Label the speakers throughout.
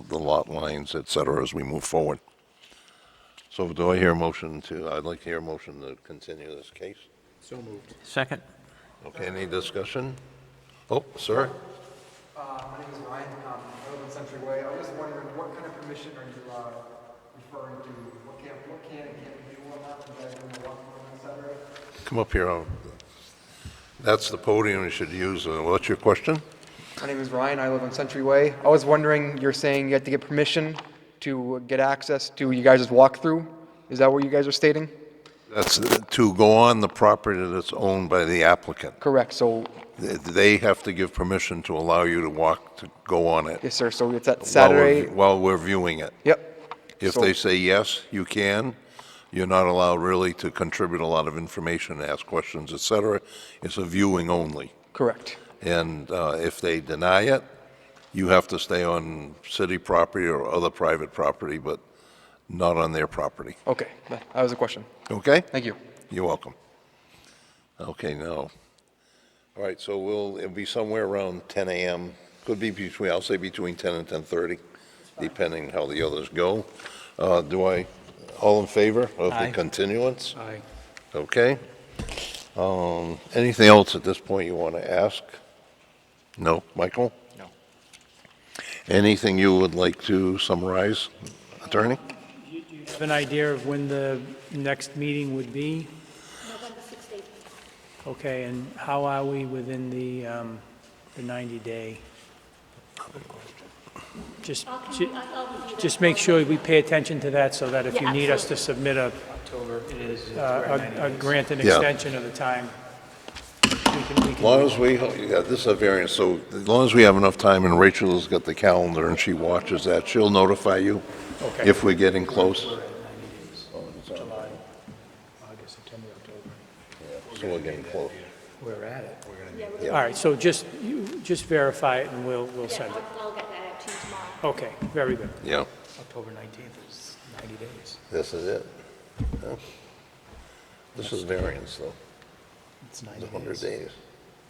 Speaker 1: the lot lines, et cetera, as we move forward. So do I hear a motion to, I'd like to hear a motion to continue this case.
Speaker 2: So moved.
Speaker 3: Second?
Speaker 1: Okay, any discussion? Oh, sir?
Speaker 4: Uh, My name is Ryan, um, I live on Century Way. I was just wondering, what kind of permission are you uh, referring to? What can, what can and can't we do on that, you guys want to walk around, et cetera?
Speaker 1: Come up here. I'll- That's the podium you should use. Uh, What's your question?
Speaker 4: My name is Ryan, I live on Century Way. I was wondering, you're saying you had to get permission to get access to you guys' walkthrough? Is that what you guys are stating?
Speaker 1: That's to go on the property that's owned by the applicant.
Speaker 4: Correct, so,
Speaker 1: Th- They have to give permission to allow you to walk, to go on it.
Speaker 4: yes, sir, so it's at
Speaker 1: while we're-
Speaker 4: Saturday?
Speaker 1: While we're viewing it.
Speaker 4: Yep,
Speaker 1: If
Speaker 4: So-
Speaker 1: they say yes, you can. You're not allowed really to contribute a lot of information, ask questions, et cetera. It's a viewing only.
Speaker 4: correct,
Speaker 1: And uh, if they deny it, you have to stay on city property or other private property, but not on their property.
Speaker 4: okay, that that was a question,
Speaker 1: Okay?
Speaker 4: thank you.
Speaker 1: You're welcome. Okay, now, all right, so we'll, it'll be somewhere around 10 a.m., could be between, I'll say between 10 and 10:30, depending how the others go. Uh, Do I, all in favor of the
Speaker 3: Aye.
Speaker 1: continuance?
Speaker 2: Aye.
Speaker 1: Okay. Um, Anything else at this point you want to ask? No, Michael?
Speaker 2: No.
Speaker 1: Anything you would like to summarize, attorney?
Speaker 5: Do you have an idea of when the next meeting would be?
Speaker 6: November 16th.
Speaker 5: Okay, and how are we within the, um, the 90-day? Just,
Speaker 6: I'll come-
Speaker 5: ju-
Speaker 6: I'll- I'll review that
Speaker 5: just make
Speaker 6: for
Speaker 5: sure we pay attention to that so that if
Speaker 6: Yeah,
Speaker 5: you need us to submit a, uh, a, a grant and
Speaker 1: Yeah.
Speaker 5: extension of the time, we can, we
Speaker 1: As long
Speaker 5: can,
Speaker 1: as we, yeah, this is a variance, so as long as we have enough time and Rachel's got the calendar and she watches that, she'll notify you
Speaker 5: okay.
Speaker 1: if we're getting close.
Speaker 2: August, September, October.
Speaker 1: So we're getting close.
Speaker 2: We're at it. We're gonna.
Speaker 6: you.
Speaker 1: yeah.
Speaker 5: All right, so just, you, just verify it and we'll, we'll
Speaker 6: Yeah,
Speaker 5: send it.
Speaker 6: I'll- I'll get that out to you tomorrow.
Speaker 5: Okay, very good.
Speaker 1: Yeah,
Speaker 2: October 19th is 90 days.
Speaker 1: this is it. Yeah. This is variance though,
Speaker 2: It's 90
Speaker 1: the 100
Speaker 2: days.
Speaker 1: days.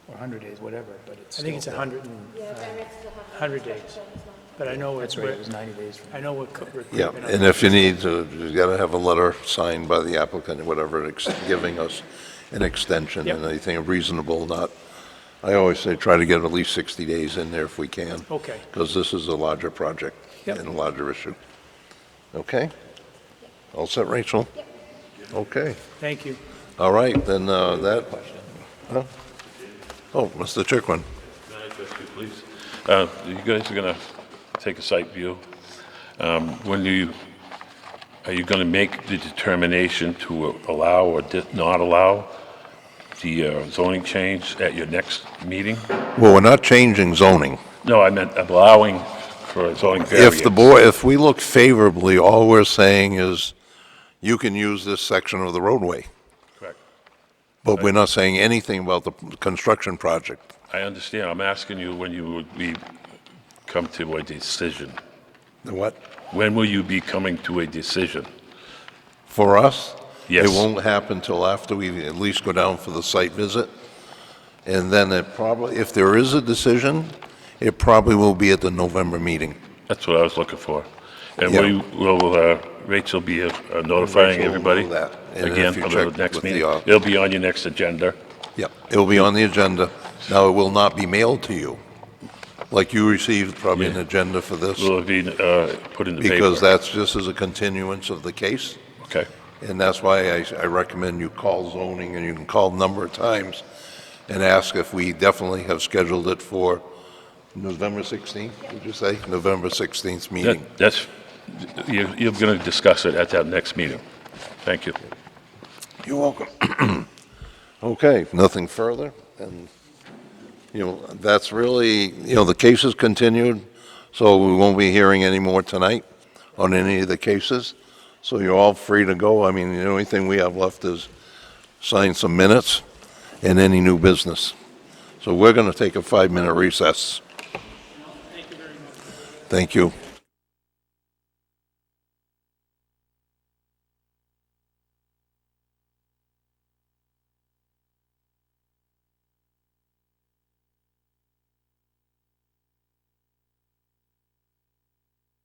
Speaker 2: Or 100 days, whatever, but it's
Speaker 5: I think it's
Speaker 2: still-
Speaker 5: 100 and,
Speaker 6: Yeah, variance is 100.
Speaker 5: 100 days.
Speaker 6: special permit is not.
Speaker 5: but I know
Speaker 2: That's
Speaker 5: it's,
Speaker 2: right, it was 90 days from.
Speaker 5: I know what. co- we're
Speaker 1: Yeah,
Speaker 5: creeping up
Speaker 1: and if you need to, you gotta have a letter signed by the applicant or whatever, ex- giving us an extension and
Speaker 5: Yep.
Speaker 1: anything reasonable, not, I always say try to get at least 60 days in there if we can.
Speaker 5: Okay.
Speaker 1: Because this is a larger project
Speaker 5: Yep.
Speaker 1: and a larger issue. Okay? All set, Rachel? Okay,
Speaker 5: Thank you.
Speaker 1: all right, then uh, that, huh? oh, Mr. Chickwin.
Speaker 7: Can I ask you, please? Uh, You guys are going to take a site view. Um, When do you, are you going to make the determination to allow or di- not allow the uh, zoning change at your next meeting?
Speaker 1: Well, we're not changing zoning.
Speaker 7: No, I meant allowing for a zoning variance.
Speaker 1: If the board, if we look favorably, all we're saying is, you can use this section of the roadway,
Speaker 7: Correct.
Speaker 1: but we're not saying anything about the construction project.
Speaker 7: I understand. I'm asking you when you would be, come to a decision.
Speaker 1: The What?
Speaker 7: When will you be coming to a decision?
Speaker 1: For us?
Speaker 7: Yes.
Speaker 1: It won't happen till after we at least go down for the site visit. And then it probably, if there is a decision, it probably will be at the November meeting.
Speaker 7: That's what I was looking for. And
Speaker 1: Yeah.
Speaker 7: we will, uh, Rachel be uh, notifying
Speaker 1: Rachel will
Speaker 7: everybody
Speaker 1: know that, and if
Speaker 7: again
Speaker 1: you
Speaker 7: for the
Speaker 1: check
Speaker 7: next
Speaker 1: with the,
Speaker 7: meeting.
Speaker 1: uh,
Speaker 7: It'll be on your next agenda.
Speaker 1: Yep, it will be on the agenda. Now, it will not be mailed to you, like you received probably an
Speaker 7: Yeah.
Speaker 1: agenda for this,
Speaker 7: Will it be uh, put in the paper?
Speaker 1: because that's just as a continuance of the case.
Speaker 7: Okay,
Speaker 1: And that's why I, I recommend you call zoning, and you can call a number of times and ask if we definitely have scheduled it for November 16th, did you say? November 16th
Speaker 7: That-
Speaker 1: meeting.
Speaker 7: that's, you- you're going to discuss it at that next meeting. Thank you.
Speaker 1: You're welcome. Okay, nothing further, and, you know, that's really, you know, the case is continued, so we won't be hearing any more tonight on any of the cases, so you're all free to go. I mean, the only thing we have left is sign some minutes and any new business. So we're going to take a five-minute recess. Thank you very much. Thank you.